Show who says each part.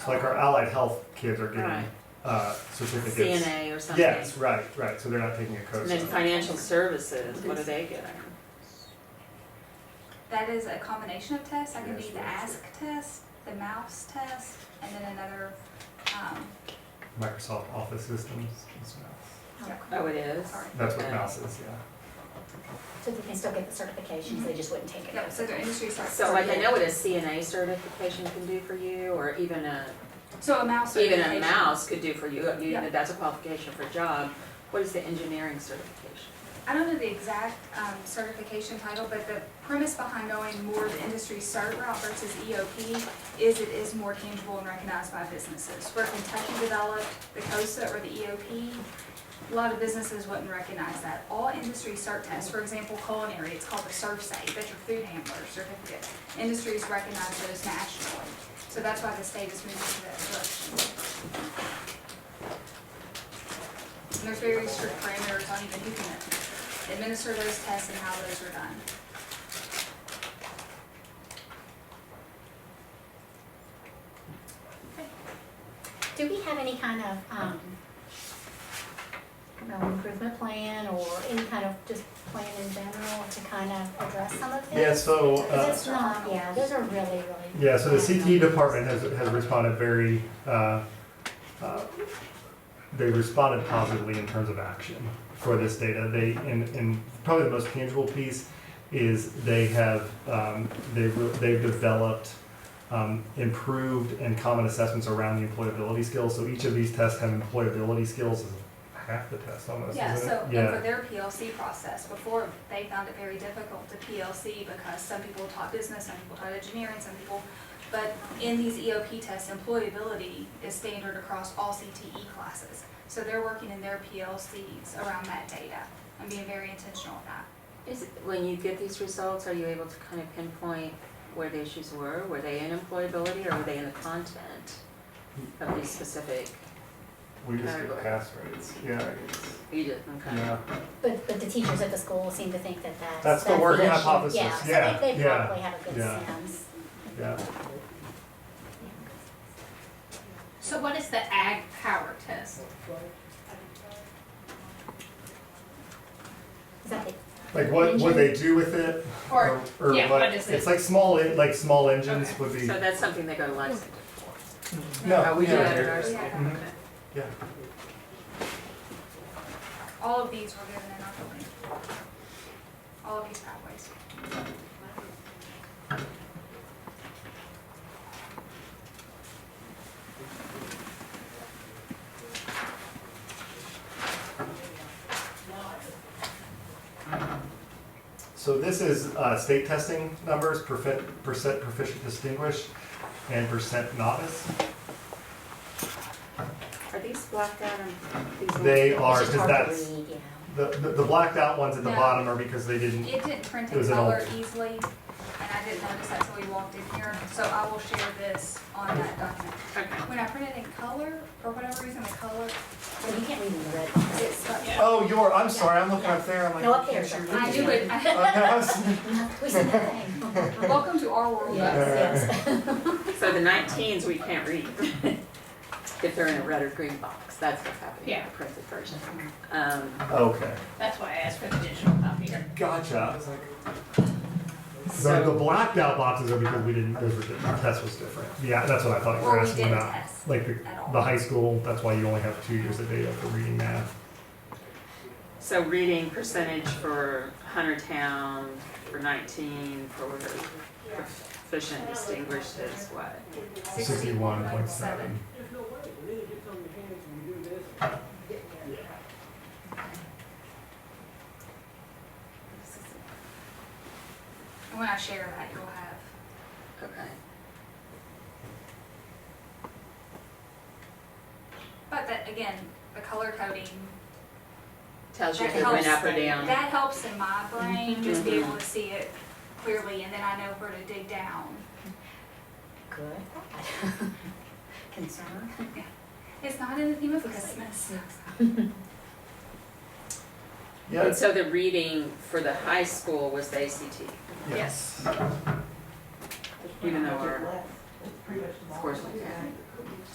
Speaker 1: Like our allied health kids are getting
Speaker 2: Right.
Speaker 1: uh, certificates.
Speaker 2: CNA or something.
Speaker 1: Yes, right, right, so they're not taking a
Speaker 2: And then
Speaker 1: COSA.
Speaker 2: financial services, what are they getting?
Speaker 3: That is a combination of tests. That could be
Speaker 1: Yes,
Speaker 3: the
Speaker 1: that's
Speaker 3: ask test, the mouse test, and then another, um,
Speaker 1: Microsoft Office Systems is mouse.
Speaker 2: Oh, it is?
Speaker 3: Sorry.
Speaker 1: That's what
Speaker 2: Yeah.
Speaker 1: mouse is, yeah.
Speaker 4: So they can still get the certifications, they just wouldn't take it.
Speaker 3: yeah, so the industry starts.
Speaker 2: So like I know what a CNA certification can do for you, or even a,
Speaker 3: So a mouse
Speaker 2: even
Speaker 3: certification.
Speaker 2: a mouse could do for you, I mean,
Speaker 3: Yeah.
Speaker 2: that's a qualification for a job. What is the engineering certification?
Speaker 3: I don't know the exact um, certification title, but the premise behind going more the industry cert route versus EOP is it is more tangible and recognized by businesses. Where Kentucky developed the COSA or the EOP, a lot of businesses wouldn't recognize that. All industry cert tests, for example, culinary, it's called the ServSafe, that's your food handler certificate. Industries recognize those nationally, so that's why the state is moving to that direction. And there's very strict parameters on even who can administer those tests and how those are done.
Speaker 4: Do we have any kind of, um, I don't know, improvement plan or any kind of just plan in general to kind of address some of this?
Speaker 1: Yeah, so,
Speaker 4: Because
Speaker 1: uh,
Speaker 4: it's not, yeah, those are really, really.
Speaker 1: yeah, so the CTE department has, has responded very, uh, uh, they responded positively in terms of action for this data. They, and, and probably the most tangible piece is they have, um, they've, re- they've developed um, improved and common assessments around the employability skills. So each of these tests have employability skills as half the test almost,
Speaker 3: Yeah,
Speaker 1: isn't it?
Speaker 3: so,
Speaker 1: Yeah.
Speaker 3: and for their PLC process, before, they found it very difficult to PLC because some people taught business, some people taught engineering, some people, but in these EOP tests, employability is standard across all CTE classes. So they're working in their PLCs around that data and being very intentional with that.
Speaker 2: Is, when you get these results, are you able to kind of pinpoint where the issues were? Were they in employability or were they in the content of these specific,
Speaker 1: We
Speaker 2: just get
Speaker 1: pass rates, yeah.
Speaker 2: you did, okay.
Speaker 4: But, but the teachers at the school seem to think that that's.
Speaker 1: That's the working
Speaker 4: issue.
Speaker 1: hypothesis, yeah,
Speaker 4: so they, they
Speaker 1: yeah,
Speaker 4: probably have a good
Speaker 1: yeah.
Speaker 4: sense.
Speaker 1: Yeah,
Speaker 5: So what is the ag power test?
Speaker 4: Is that the,
Speaker 1: like what, what they do with it,
Speaker 5: Or,
Speaker 1: or, or
Speaker 5: yeah,
Speaker 1: what,
Speaker 5: what is
Speaker 1: it's
Speaker 5: it?
Speaker 1: like small, en- like small engines
Speaker 5: Okay.
Speaker 1: would be,
Speaker 2: So that's something they go to Lexington for?
Speaker 1: no,
Speaker 2: Oh, we do
Speaker 1: yeah.
Speaker 2: that at our
Speaker 3: We uh,
Speaker 2: school.
Speaker 3: had
Speaker 1: Mhm.
Speaker 3: that.
Speaker 1: Yeah,
Speaker 3: All of these were given in our building. All of these pathways.
Speaker 1: so this is, uh, state testing numbers, percent, percent proficient distinguished, and percent novice.
Speaker 2: Are these blacked out on these? ones?
Speaker 1: They are,
Speaker 4: it's just
Speaker 1: cause
Speaker 4: hard to
Speaker 1: that's,
Speaker 4: read, yeah.
Speaker 1: the, the the blacked out ones at the
Speaker 3: No.
Speaker 1: bottom are because they didn't,
Speaker 3: It didn't print
Speaker 1: It
Speaker 3: in
Speaker 1: was an
Speaker 3: color
Speaker 1: old-
Speaker 3: easily, and I didn't notice that till we walked in here, so I will share this on that document.
Speaker 5: okay.
Speaker 3: When I print it in color, for whatever reason, the color,
Speaker 4: Well, you can't read in the red box.
Speaker 3: it's stuck.
Speaker 5: Yeah.
Speaker 1: oh, you're, I'm sorry, I'm looking up there, I'm like.
Speaker 4: No, up
Speaker 1: can't
Speaker 4: there's
Speaker 1: you
Speaker 4: a-
Speaker 1: read
Speaker 3: I do
Speaker 1: it?
Speaker 3: it,
Speaker 1: Oh, no, I'm sorry.
Speaker 4: We said nothing.
Speaker 3: welcome to our world.
Speaker 4: Yes, yes.
Speaker 2: So the nineteens, we can't read. If they're in a red or green box, that's what's happening in
Speaker 5: Yeah.
Speaker 2: the printed version. Um,
Speaker 1: Okay,
Speaker 5: That's why I asked for the digital copy here.
Speaker 1: gotcha, I was like. The, the
Speaker 2: so,
Speaker 1: blacked out boxes are because we didn't, those were, di- our test was different. Yeah, that's what I thought you
Speaker 3: Or
Speaker 1: were
Speaker 3: we
Speaker 1: asking
Speaker 3: didn't
Speaker 1: about.
Speaker 3: test
Speaker 1: Like the,
Speaker 3: at all.
Speaker 1: the high school, that's why you only have two years of data for reading math.
Speaker 2: so reading percentage for Huntertown, for nineteen, for proficient distinguished is what?
Speaker 1: Sixty-one point seven.
Speaker 6: There's no way, we need to get something in hands and we do this.
Speaker 3: And when I share that, you'll have,
Speaker 2: Okay.
Speaker 3: but that, again, the color coding,
Speaker 2: Tells you
Speaker 3: that
Speaker 2: if it went
Speaker 3: helps,
Speaker 2: up or down.
Speaker 3: that helps in my brain, just be
Speaker 2: Mhm.
Speaker 3: able to see it clearly, and then I know where to dig down.
Speaker 4: Good. Concern.
Speaker 3: It's not in the theme of
Speaker 4: Because-
Speaker 3: Christmas.
Speaker 2: And so the reading for the high school was the ACT,
Speaker 5: Yes.
Speaker 2: even though our
Speaker 7: Pretty much the
Speaker 2: scores went down.